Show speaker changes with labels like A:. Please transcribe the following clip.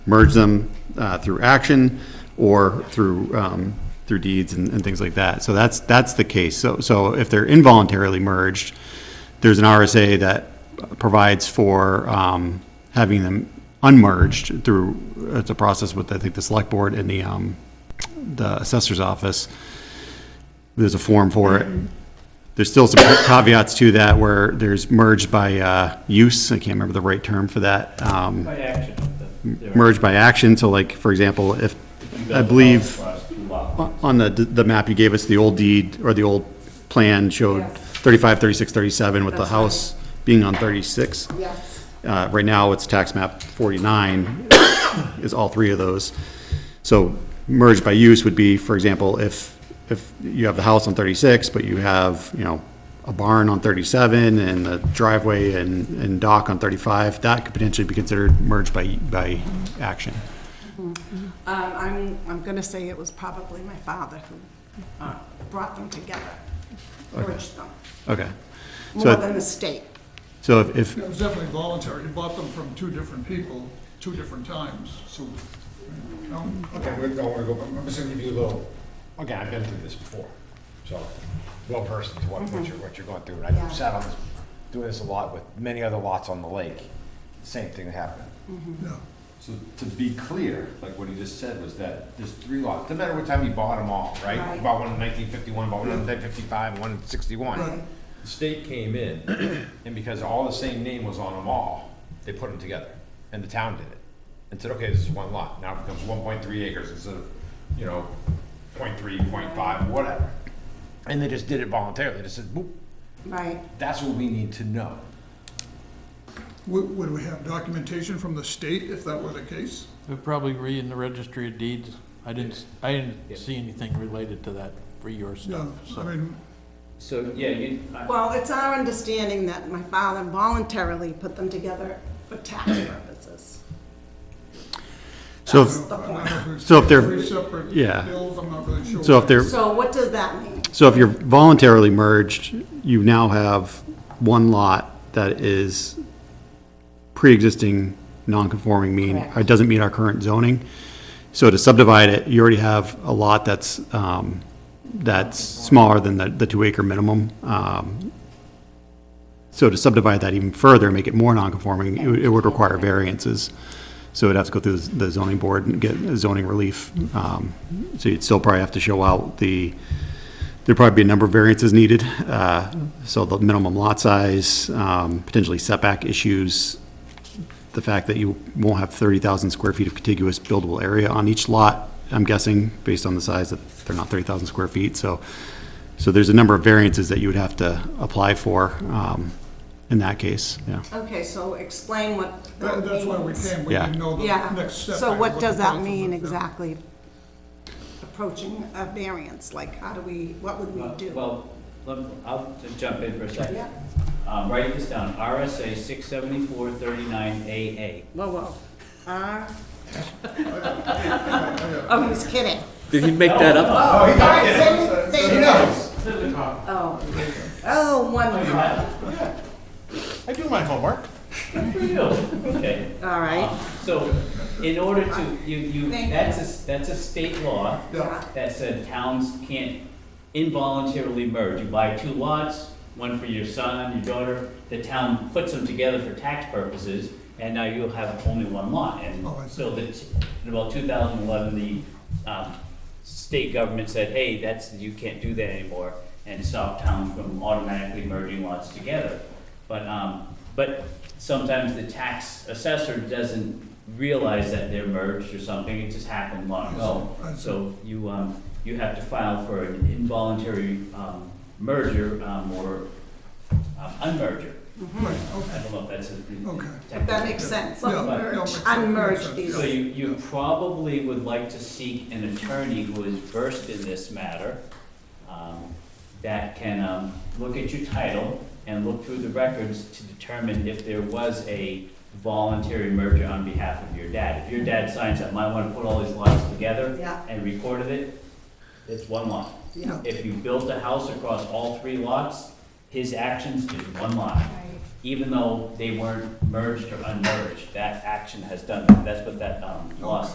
A: merge them uh, through action or through, um, through deeds and, and things like that. So that's, that's the case. So, so if they're involuntarily merged, there's an RSA that provides for um, having them unmerged through, it's a process with, I think, the select board and the, um, the assessor's office. There's a form for it. There's still some caveats to that where there's merged by uh, use, I can't remember the right term for that. um,
B: By action of them. They're-
A: merged by action, so like, for example, if, I believe,
B: Across two lots.
A: on the, the map you gave us, the old deed, or the old plan showed
C: Yes.
A: 35, 36, 37, with the
C: That's right.
A: house being on 36.
C: Yes.
A: Uh, Right now, it's tax map 49, is all three of those. So merged by use would be, for example, if, if you have the house on 36, but you have, you know, a barn on 37 and a driveway and, and dock on 35, that could potentially be considered merged by, by action.
C: Um, I'm, I'm gonna say it was probably my father who uh, brought them together, urged them,
A: Okay.
C: more
A: So,
C: than the state.
A: so if- if,
D: It was definitely voluntary. He bought them from two different people, two different times, so, no?
E: Okay, we don't want to go, but I'm just going to give you a little, again, I've been through this before, so, well versed in what, what you're, what you're going through. And
C: Yeah.
E: I've sat on this, doing this a lot with many other lots on the lake, same thing happened.
C: Mm-hmm.
D: Yeah.
F: So to be clear, like what he just said was that there's three lots, no matter what time you bought them all, right?
C: Right.
E: About Bought one in nineteen fifty-one, bought one in nineteen fifty-five, one in sixty-one. The state came in, and because all the same name was on them all, they put them together, and the town did it. And said, okay, this is one lot, now it becomes one point three acres instead of, you know, point three, point five, whatever. And they just did it voluntarily, they just said, boop,
C: Right,
E: that's what we need to know.
D: Would, would we have documentation from the state if that were the case?
G: They're probably re in the registry of deeds. I didn't, s- I didn't see anything related to that for your
D: Yeah,
G: stuff,
D: I
G: so.
D: mean,
B: So, yeah, you, I-
C: well, it's our understanding that my father voluntarily put them together for tax purposes.
A: so,
C: That's
A: if-
C: the
D: I don't
C: point.
D: know if there's
A: So if they're-
D: Three separate
A: yeah.
D: bills, I'm not really sure.
A: so if they're,
C: So what does that mean?
A: so if you're voluntarily merged, you now have one lot that is pre-existing, non-conforming mean, or
C: Correct.
A: doesn't meet our current zoning. So to subdivide it, you already have a lot that's, um, that's smaller than the, the two acre minimum. Um, So to subdivide that even further, and make it more non-conforming, it would, it would require variances. So it'd have to go through the zoning board and get zoning relief. Um, So you'd still probably have to show out the, there'd probably be a number of variances needed. uh, So the minimum lot size, um, potentially setback issues, the fact that you won't have 30,000 square feet of contiguous buildable area on each lot, I'm guessing, based on the size that they're not 30,000 square feet. So, so there's a number of variances that you would have to apply for um, in that case, yeah.
C: Okay, so explain what
D: That-
C: that
D: That's why we
C: means.
D: came, we
A: Yeah.
D: didn't know the
C: Yeah,
D: next step.
C: so what does that mean
D: Yeah.
C: exactly? Approaching a variance, like how do we, what would we
B: well-
C: do?
B: well, let me- I'll just jump in for a second.
C: Yeah,
B: Um, write this down, RSA six seventy-four thirty-nine AA.
C: whoa, whoa. Ah. Oh, he's kidding.
H: Did he make that up?
C: Oh, all right, say- say- Oh, oh, wonderful,
E: I do my homework.
B: Good for you. Okay.
C: all right.
B: So, in order to, you, you,
C: Thank you.
B: that's a, s- that's a state law
D: Yeah.
B: that said towns can't involuntarily merge. You buy two lots, one for your son, your daughter, the town puts them together for tax purposes, and now you'll have only one lot. And
D: Oh, I see.
B: so that, in about two thousand eleven, the, um, state government said, hey, that's, you can't do that anymore, and stopped towns from automatically merging lots together. But, um, but sometimes the tax assessor doesn't realize that they're merged or something, it just happened long ago.
D: I see.
B: So you, um, you have to file for an involuntary, um, merger, um, or, um, unmerger.
D: Right,
B: I
D: okay,
B: don't know if that's a.
D: Okay.
C: If that makes sense,
D: Yeah, yeah,
C: merge,
D: makes sense, makes
C: unmerge
D: sense,
C: these.
B: So you, you probably would like to seek an attorney who is versed in this matter, um, that can, um, look at your title and look through the records to determine if there was a voluntary merger on behalf of your dad. If your dad signs up, might wanna put all these lots together
C: Yeah.
B: and recorded it, it's one lot.
C: Yeah.
B: If you built a house across all three lots, his actions is one lot.
C: Right.
B: even though they weren't merged or unmerged, that action has done, that's what that, um, law